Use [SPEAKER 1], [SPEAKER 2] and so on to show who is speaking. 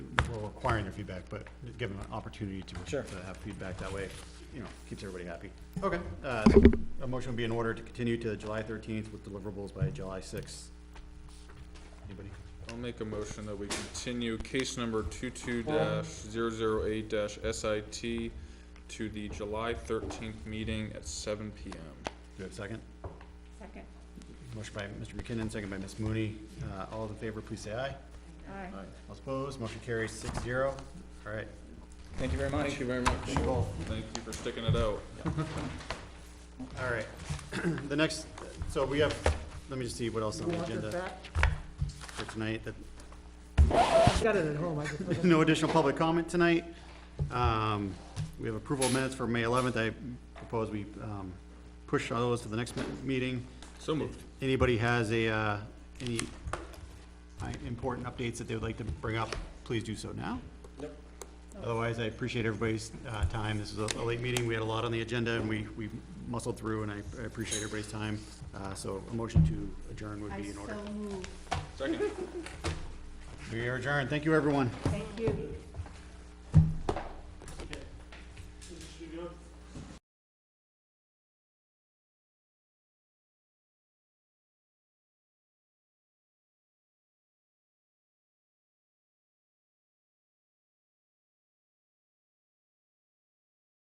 [SPEAKER 1] requiring their feedback, but give them an opportunity to.
[SPEAKER 2] Sure.
[SPEAKER 1] To have feedback, that way, you know, keeps everybody happy. Okay, uh, a motion would be in order to continue to July thirteenth with deliverables by July sixth. Anybody?
[SPEAKER 3] I'll make a motion that we continue case number two-two dash zero-zero-eight dash SIT to the July thirteenth meeting at seven PM.
[SPEAKER 1] Do we have a second?
[SPEAKER 4] Second.
[SPEAKER 1] Motion by Mr. McKinnon, second by Ms. Mooney. Uh, all in favor, please say aye.
[SPEAKER 4] Aye.
[SPEAKER 1] All opposed, motion carries six zero. All right,
[SPEAKER 2] Thank you very much.
[SPEAKER 3] Thank you very much. Thank you for sticking it out.
[SPEAKER 1] all right. The next, so we have, let me just see what else on the agenda for tonight. That-
[SPEAKER 5] I've got it at home, I just forgot.
[SPEAKER 1] No additional public comment tonight. Um, we have approval of minutes for May eleventh. I propose we, um, push all those to the next mi- meeting.
[SPEAKER 3] So moved.
[SPEAKER 1] Anybody has a, uh, any uh, important updates that they would like to bring up, please do so now. Otherwise, I appreciate everybody's uh, time. This is a a late meeting. We had a lot on the agenda, and we we muscled through, and I I appreciate everybody's time. Uh, So a motion to adjourn would
[SPEAKER 4] I
[SPEAKER 1] be in order.
[SPEAKER 4] so move.
[SPEAKER 3] Second.
[SPEAKER 1] We are adjourned. Thank you, everyone.
[SPEAKER 4] Thank you.